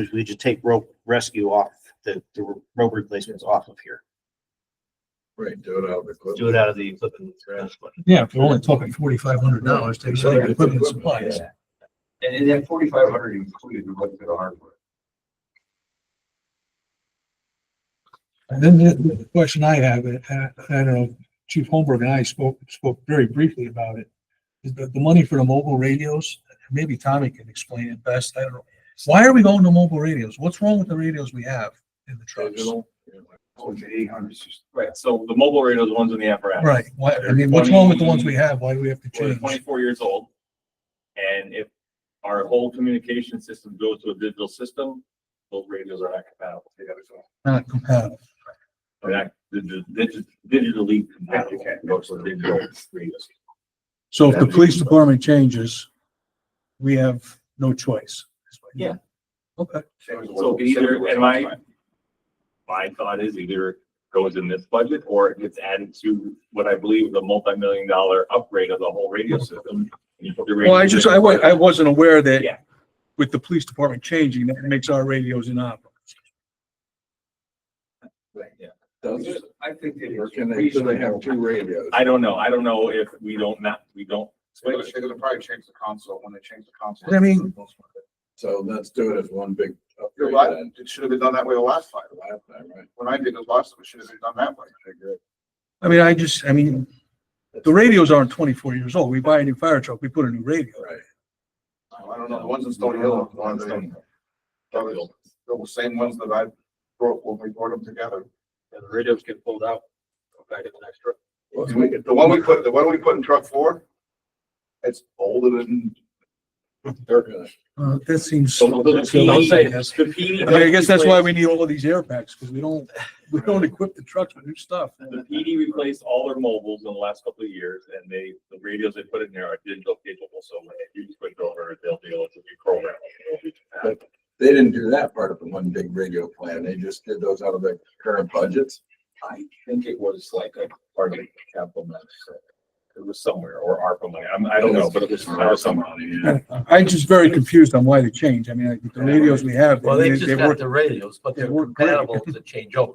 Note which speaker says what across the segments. Speaker 1: is we just take rope rescue off, the, the rope replacements off of here.
Speaker 2: Right, do it out of the. equipment.
Speaker 1: Do it out of the equipment.
Speaker 3: Yeah, if we're only talking forty-five hundred dollars, take
Speaker 2: So
Speaker 3: some
Speaker 2: it's
Speaker 3: equipment
Speaker 2: equipment,
Speaker 3: supplies.
Speaker 2: yeah.
Speaker 4: And, and that forty-five hundred included what the hardware.
Speaker 3: And then the, the question I have, and I, I don't know, Chief Holmberg and I spoke, spoke very briefly about it. Is the, the money for the mobile radios, maybe Tommy can explain it best, I don't know. Why are we going to mobile radios? What's wrong with the radios we have in the trucks?
Speaker 2: Digital, yeah.
Speaker 4: Oh, it's eight hundred system.
Speaker 5: Right, so the mobile radio is the ones in the apparatus.
Speaker 3: Right, why, I mean, what's wrong with the ones we have? Why do we have to
Speaker 5: We're
Speaker 3: change?
Speaker 5: twenty-four years old. And if our whole communication system goes to a digital system, those radios are not compatible together. So
Speaker 3: Not compatible.
Speaker 5: They're not digi- digi- digitally compatible.
Speaker 4: Okay.
Speaker 5: Those are digital radios.
Speaker 3: So if the police department changes, we have no choice.
Speaker 5: Yeah.
Speaker 3: Okay,
Speaker 5: So either, and my, my thought is either goes in this budget or it gets added to what I believe is a multi-million dollar upgrade of the whole radio system.
Speaker 3: well, I just, I wa- I wasn't aware that
Speaker 5: Yeah.
Speaker 3: with the police department changing, that makes our radios inoperable.
Speaker 2: Does it,
Speaker 4: I think it
Speaker 2: or
Speaker 4: is.
Speaker 2: can they, do they have two radios?
Speaker 5: I don't know. I don't know if we don't not, we don't
Speaker 6: They're
Speaker 5: switch.
Speaker 6: gonna they're gonna probably change the console when they change the console.
Speaker 3: I mean-
Speaker 2: So let's do it as one big.
Speaker 6: You're
Speaker 2: upgrade
Speaker 6: right,
Speaker 2: then,
Speaker 6: it should have been done that way the last time.
Speaker 2: last time, right?
Speaker 6: When I did it last time, it should have been done that way.
Speaker 2: I agree.
Speaker 3: I mean, I just, I mean, the radios aren't twenty-four years old. We buy a new fire truck, we put a new radio.
Speaker 2: Right.
Speaker 6: I don't know, the ones in Stony Hill, the ones in, they're the same ones that I brought when we brought them together.
Speaker 4: The radios get pulled out. Back in the next truck.
Speaker 2: Well, we could-
Speaker 6: The one we put, the one we put in truck four, it's older than,
Speaker 2: they're gonna-
Speaker 3: Uh, that seems.
Speaker 5: So the
Speaker 3: Don't say
Speaker 5: PD
Speaker 3: it.
Speaker 5: the E PD
Speaker 3: I mean, I guess that's why we need all of these air packs, because we don't, we don't equip the trucks with new stuff.
Speaker 5: The PD replaced all their mobiles in the last couple of years and they, the radios they put in there are digital capable, so when you switch over, they'll be able to be programmed.
Speaker 2: They didn't do that part of the one big radio plan. They just did those out of their current budgets.
Speaker 5: I think it was like a part of the capital mess. It was somewhere or ARPA money. I'm, I don't know, but it was, I was somewhere.
Speaker 2: Yeah.
Speaker 3: I'm just very confused on why they change. I mean, I think the radios we have.
Speaker 4: Well, they
Speaker 3: they-
Speaker 4: just
Speaker 3: they
Speaker 4: got
Speaker 3: work-
Speaker 4: the radios, but
Speaker 3: they
Speaker 4: they're
Speaker 3: work great.
Speaker 4: compatible to change over.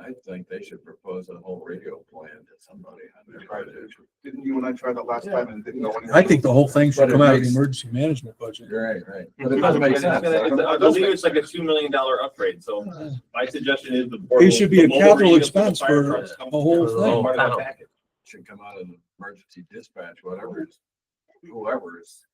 Speaker 2: I think they should propose a whole radio plan to somebody. I mean, try to-
Speaker 6: didn't you and I try that last time and it didn't go anywhere?
Speaker 3: I think the whole thing should
Speaker 2: But it
Speaker 3: come out of the
Speaker 2: makes-
Speaker 3: emergency management budget.
Speaker 2: Right, right. But it doesn't make sense.
Speaker 5: I believe it's like a two million dollar upgrade, so my suggestion is the. portable-
Speaker 3: It should be a
Speaker 5: the mobile
Speaker 3: capital
Speaker 5: radios the
Speaker 3: expense
Speaker 5: fire
Speaker 3: for
Speaker 5: trucks come
Speaker 3: the whole
Speaker 5: together.
Speaker 3: thing.
Speaker 5: Part of
Speaker 4: Panel.
Speaker 5: the package.
Speaker 2: Should come out of the emergency dispatch, whatever, is- whoever is.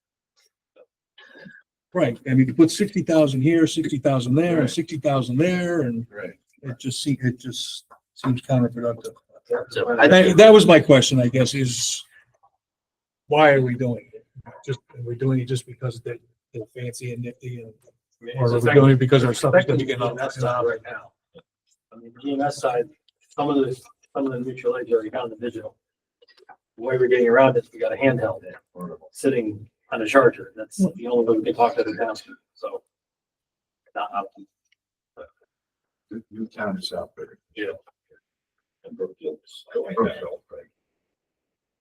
Speaker 3: Right. I mean, you put sixty thousand here, sixty thousand there, and
Speaker 2: Right.
Speaker 3: sixty thousand there, and
Speaker 2: Right.
Speaker 3: it just seems, it just seems counterproductive.
Speaker 4: So I
Speaker 3: That, that was my question, I guess, is why are we doing it? Just, are we doing it just because they're, they're fancy and nifty and, or are we doing it because our stuff is gonna get on?
Speaker 5: uh,
Speaker 7: right now. I mean, the EMS side, some of the, some of the mutual aids are on the digital. The Way we're getting around is we got a handheld sitting on a charger. That's the only way we can talk to the town, so. Not up.
Speaker 2: New town is out there.
Speaker 5: And Brookfield's going back.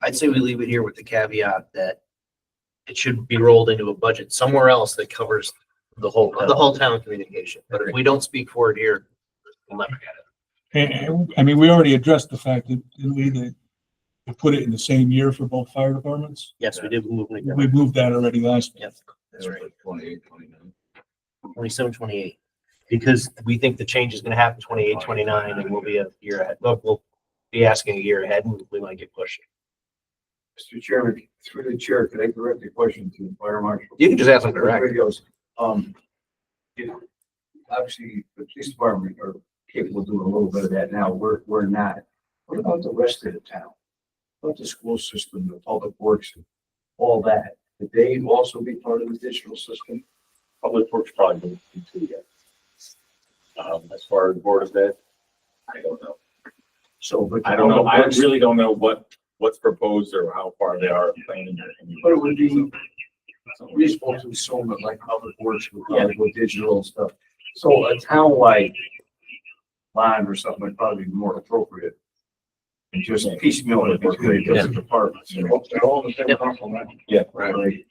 Speaker 4: I'd say we leave it here with the caveat that it should be rolled into a budget somewhere else that covers the whole, the whole town communication. But if we don't speak for it here, we'll never get it.
Speaker 3: I mean, we already addressed the fact that, didn't we, that we put it in the same year for both fire departments?
Speaker 1: Yes, we did move them together,
Speaker 3: We moved that already last.
Speaker 1: Yep.
Speaker 2: That's right. Twenty-eight, twenty-nine.
Speaker 1: twenty-seven, twenty-eight.
Speaker 4: Because we think the change is gonna happen twenty-eight, twenty-nine, and we'll be a year ahead. Well, We'll be asking a year ahead and we might get pushed.
Speaker 6: Mr. Chairman, through the chair, could I direct a question to the fire marshal?
Speaker 4: You can just ask them
Speaker 6: Those
Speaker 4: direct.
Speaker 6: Radios, um, you know, obviously, the police department are capable of doing a little bit of that now, we're, we're not. What about the rest of the town? What About the school system, the public works, all that, could they also be part of the digital system?
Speaker 5: Public Works probably doesn't need to yet. Um, as far as board of that, I don't know.
Speaker 6: So, but.
Speaker 5: I don't know. I really don't know what, what's proposed or how far they are planning.
Speaker 6: But it would be reasonable to assume that like public works would probably go digital and stuff. So a town like line or something would probably be more appropriate. And just piecemeal it between the different departments, you know, they're all in the same complement.
Speaker 5: Yeah.
Speaker 6: Right.